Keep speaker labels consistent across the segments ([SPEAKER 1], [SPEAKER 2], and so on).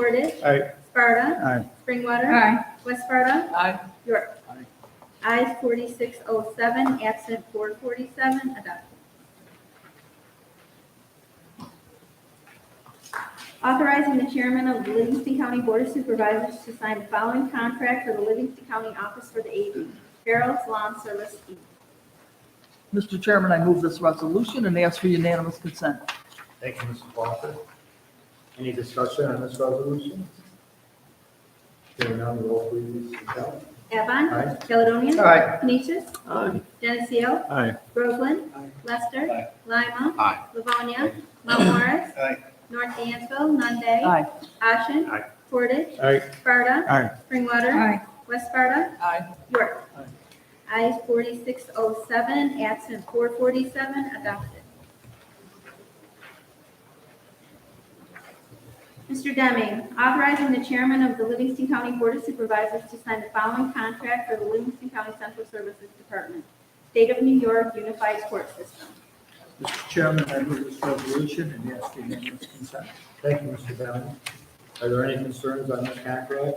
[SPEAKER 1] Portage.
[SPEAKER 2] Aye.
[SPEAKER 1] Sparta.
[SPEAKER 2] Aye.
[SPEAKER 1] Springwater.
[SPEAKER 3] Aye.
[SPEAKER 1] West Sparta.
[SPEAKER 4] Aye.
[SPEAKER 1] York. Ayes forty-six oh seven, absent four forty-seven, adopted. Authorizing the chairman of the Livingston County Board of Supervisors to sign the following contract for the Livingston County Office for the Aging, Farrell's Lawn Service, Inc.
[SPEAKER 4] Mr. Chairman, I move this resolution and ask for unanimous consent.
[SPEAKER 2] Thank you, Mrs. Walker. Any discussion on this resolution? Hearing none, roll please, Michelle.
[SPEAKER 1] Avon.
[SPEAKER 2] Aye.
[SPEAKER 1] Caledonia.
[SPEAKER 2] Aye.
[SPEAKER 1] Canisius.
[SPEAKER 5] Aye.
[SPEAKER 1] Geneseo.
[SPEAKER 2] Aye.
[SPEAKER 1] Groveland.
[SPEAKER 4] Aye.
[SPEAKER 1] Lester.
[SPEAKER 2] Aye.
[SPEAKER 1] Lima.
[SPEAKER 2] Aye.
[SPEAKER 1] Livonia. Mount Morris.
[SPEAKER 2] Aye.
[SPEAKER 1] North Dansville. Nunde.
[SPEAKER 4] Aye.
[SPEAKER 1] Ashen.
[SPEAKER 2] Aye.
[SPEAKER 1] Portage.
[SPEAKER 2] Aye.
[SPEAKER 1] Sparta.
[SPEAKER 2] Aye.
[SPEAKER 1] Springwater.
[SPEAKER 3] Aye.
[SPEAKER 1] West Sparta.
[SPEAKER 4] Aye.
[SPEAKER 1] York. Ayes forty-six oh seven, absent four forty-seven, adopted. Mr. Deming, authorizing the chairman of the Livingston County Board of Supervisors to sign the following contract for the Livingston County Central Services Department, State of New York Unified Court System.
[SPEAKER 6] Mr. Chairman, I move this resolution and ask for unanimous consent.
[SPEAKER 2] Thank you, Mr. Bennett. Are there any concerns on this contract?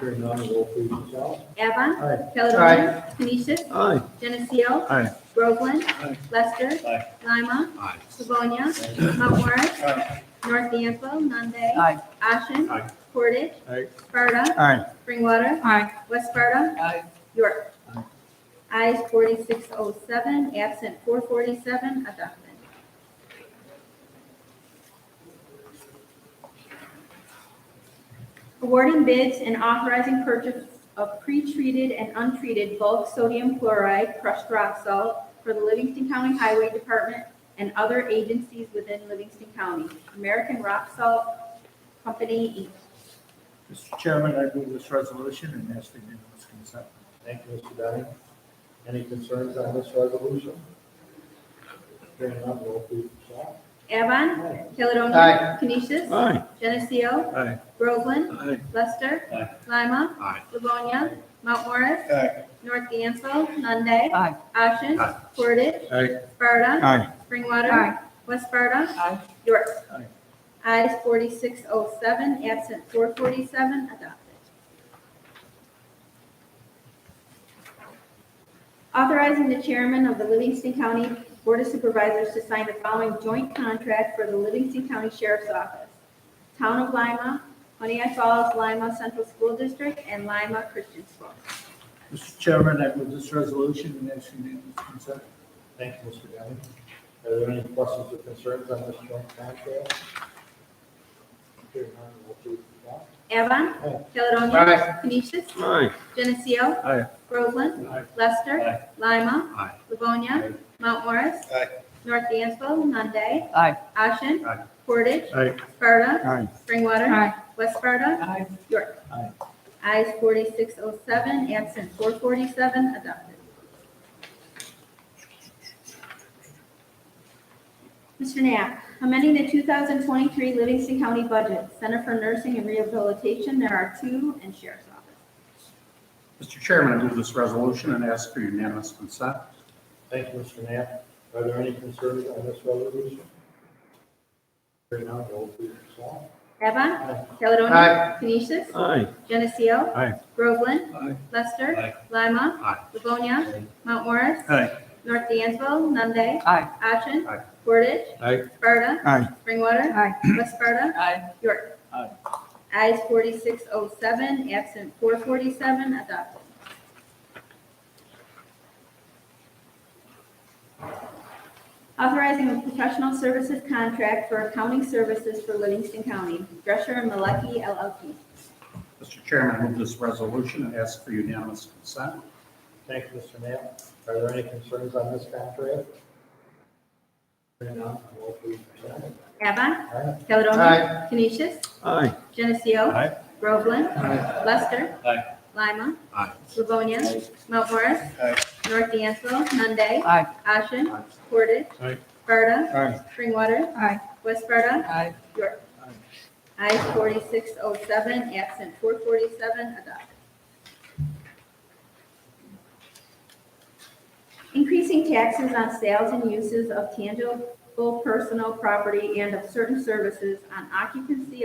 [SPEAKER 2] Hearing none, roll please, Michelle.
[SPEAKER 1] Avon.
[SPEAKER 2] Aye.
[SPEAKER 1] Caledonia. Canisius.
[SPEAKER 5] Aye.
[SPEAKER 1] Geneseo.
[SPEAKER 2] Aye.
[SPEAKER 1] Groveland.
[SPEAKER 2] Aye.
[SPEAKER 1] Lester.
[SPEAKER 2] Aye.
[SPEAKER 1] Lima.
[SPEAKER 5] Aye.
[SPEAKER 1] Livonia.
[SPEAKER 2] Aye.
[SPEAKER 1] Mount Morris.
[SPEAKER 2] Aye.
[SPEAKER 1] North D'Anville. Nunde.
[SPEAKER 4] Aye.
[SPEAKER 1] Ashen.
[SPEAKER 2] Aye.
[SPEAKER 1] Portage.
[SPEAKER 2] Aye.
[SPEAKER 1] Sparta.
[SPEAKER 2] Aye.
[SPEAKER 1] Springwater.
[SPEAKER 3] Aye.
[SPEAKER 1] West Sparta.
[SPEAKER 4] Aye.
[SPEAKER 1] York. Ayes forty-six oh seven, absent four forty-seven, adopted. Awarding bids and authorizing purchase of pre-treated and untreated bulk sodium chloride crushed rock salt for the Livingston County Highway Department and other agencies within Livingston County. American Rock Salt Company, Inc.
[SPEAKER 6] Mr. Chairman, I move this resolution and ask for unanimous consent.
[SPEAKER 2] Thank you, Mr. Bennett. Any concerns on this resolution? Hearing none, roll please, Michelle.
[SPEAKER 1] Avon, Caledonia.
[SPEAKER 2] Aye.
[SPEAKER 1] Canisius.
[SPEAKER 5] Aye.
[SPEAKER 1] Geneseo.
[SPEAKER 2] Aye.
[SPEAKER 1] Groveland.
[SPEAKER 5] Aye.
[SPEAKER 1] Lester.
[SPEAKER 2] Aye.
[SPEAKER 1] Lima.
[SPEAKER 5] Aye.
[SPEAKER 1] Livonia. Mount Morris.
[SPEAKER 2] Aye.
[SPEAKER 1] North Dansville. Nunde.
[SPEAKER 4] Aye.
[SPEAKER 1] Ashen.
[SPEAKER 5] Aye.
[SPEAKER 1] Portage.
[SPEAKER 2] Aye.
[SPEAKER 1] Sparta.
[SPEAKER 2] Aye.
[SPEAKER 1] Springwater.
[SPEAKER 3] Aye.
[SPEAKER 1] West Sparta.
[SPEAKER 4] Aye.
[SPEAKER 1] York.
[SPEAKER 2] Aye.
[SPEAKER 1] Ayes forty-six oh seven, absent four forty-seven, adopted. Authorizing the chairman of the Livingston County Board of Supervisors to sign the following joint contract for the Livingston County Sheriff's Office, Town of Lima, Honeyett Falls, Lima Central School District, and Lima Christian School.
[SPEAKER 6] Mr. Chairman, I move this resolution and ask for unanimous consent.
[SPEAKER 2] Thank you, Mr. Bennett. Are there any questions or concerns on this joint contract? Hearing none, roll please, Michelle.
[SPEAKER 1] Avon.
[SPEAKER 2] Aye.
[SPEAKER 1] Caledonia.
[SPEAKER 2] Aye.
[SPEAKER 1] Canisius.
[SPEAKER 5] Aye.
[SPEAKER 1] Geneseo.
[SPEAKER 2] Aye.
[SPEAKER 1] Groveland.
[SPEAKER 2] Aye.
[SPEAKER 1] Lester.
[SPEAKER 2] Aye.
[SPEAKER 1] Lima.
[SPEAKER 5] Aye.
[SPEAKER 1] Livonia.
[SPEAKER 2] Aye.
[SPEAKER 1] Mount Morris.
[SPEAKER 2] Aye.
[SPEAKER 1] North Dansville. Nunde.
[SPEAKER 4] Aye.
[SPEAKER 1] Ashen.
[SPEAKER 2] Aye.
[SPEAKER 1] Portage.
[SPEAKER 2] Aye.
[SPEAKER 1] Sparta.
[SPEAKER 2] Aye.
[SPEAKER 1] Springwater.
[SPEAKER 3] Aye.
[SPEAKER 1] West Sparta.
[SPEAKER 4] Aye.
[SPEAKER 1] York.
[SPEAKER 2] Aye.
[SPEAKER 1] Ayes forty-six oh seven, absent four forty-seven, adopted. Mr. Knapp, amending the two thousand twenty-three Livingston County budget, Center for Nursing and Rehabilitation, there are two, and Sheriff's Office.
[SPEAKER 7] Mr. Chairman, I move this resolution and ask for unanimous consent.
[SPEAKER 2] Thank you, Mr. Knapp. Are there any concerns on this resolution? Hearing none, roll please, Michelle.
[SPEAKER 1] Avon.
[SPEAKER 2] Aye.
[SPEAKER 1] Caledonia.
[SPEAKER 2] Aye.
[SPEAKER 1] Canisius.
[SPEAKER 5] Aye.
[SPEAKER 1] Geneseo.
[SPEAKER 2] Aye.
[SPEAKER 1] Groveland.
[SPEAKER 2] Aye.
[SPEAKER 1] Lester.
[SPEAKER 2] Aye.
[SPEAKER 1] Lima.
[SPEAKER 5] Aye.
[SPEAKER 1] Livonia.
[SPEAKER 2] Aye.
[SPEAKER 1] Mount Morris.
[SPEAKER 2] Aye.
[SPEAKER 1] North Dansville. Nunde.
[SPEAKER 4] Aye.
[SPEAKER 1] Ashen.
[SPEAKER 2] Aye.
[SPEAKER 1] Portage.
[SPEAKER 2] Aye.
[SPEAKER 1] Sparta.
[SPEAKER 2] Aye.
[SPEAKER 1] Springwater.
[SPEAKER 3] Aye.
[SPEAKER 1] West Sparta.
[SPEAKER 4] Aye.
[SPEAKER 1] York.
[SPEAKER 2] Aye.
[SPEAKER 1] Ayes forty-six oh seven, absent four forty-seven, adopted. Authorizing a professional services contract for accounting services for Livingston County, Drescher and Malecki LLP.
[SPEAKER 7] Mr. Chairman, I move this resolution and ask for unanimous consent.
[SPEAKER 2] Thank you, Mr. Knapp. Are there any concerns on this contract? Hearing none, roll please, Michelle.
[SPEAKER 1] Avon.
[SPEAKER 2] Aye.
[SPEAKER 1] Caledonia. Canisius.
[SPEAKER 5] Aye.
[SPEAKER 1] Geneseo.
[SPEAKER 2] Aye.
[SPEAKER 1] Groveland. Lester.
[SPEAKER 2] Aye.
[SPEAKER 1] Lima.
[SPEAKER 5] Aye.
[SPEAKER 1] Livonia. Mount Morris.
[SPEAKER 2] Aye.
[SPEAKER 1] North Dansville. Nunde.
[SPEAKER 4] Aye.
[SPEAKER 1] Ashen.
[SPEAKER 2] Aye.
[SPEAKER 1] Portage.
[SPEAKER 2] Aye.
[SPEAKER 1] Sparta.
[SPEAKER 2] Aye.
[SPEAKER 1] Springwater.
[SPEAKER 3] Aye.
[SPEAKER 1] West Sparta.
[SPEAKER 4] Aye.
[SPEAKER 1] York. Ayes forty-six oh seven, absent four forty-seven, adopted. Increasing taxes on sales and uses of tangible personal property and of certain services on occupancy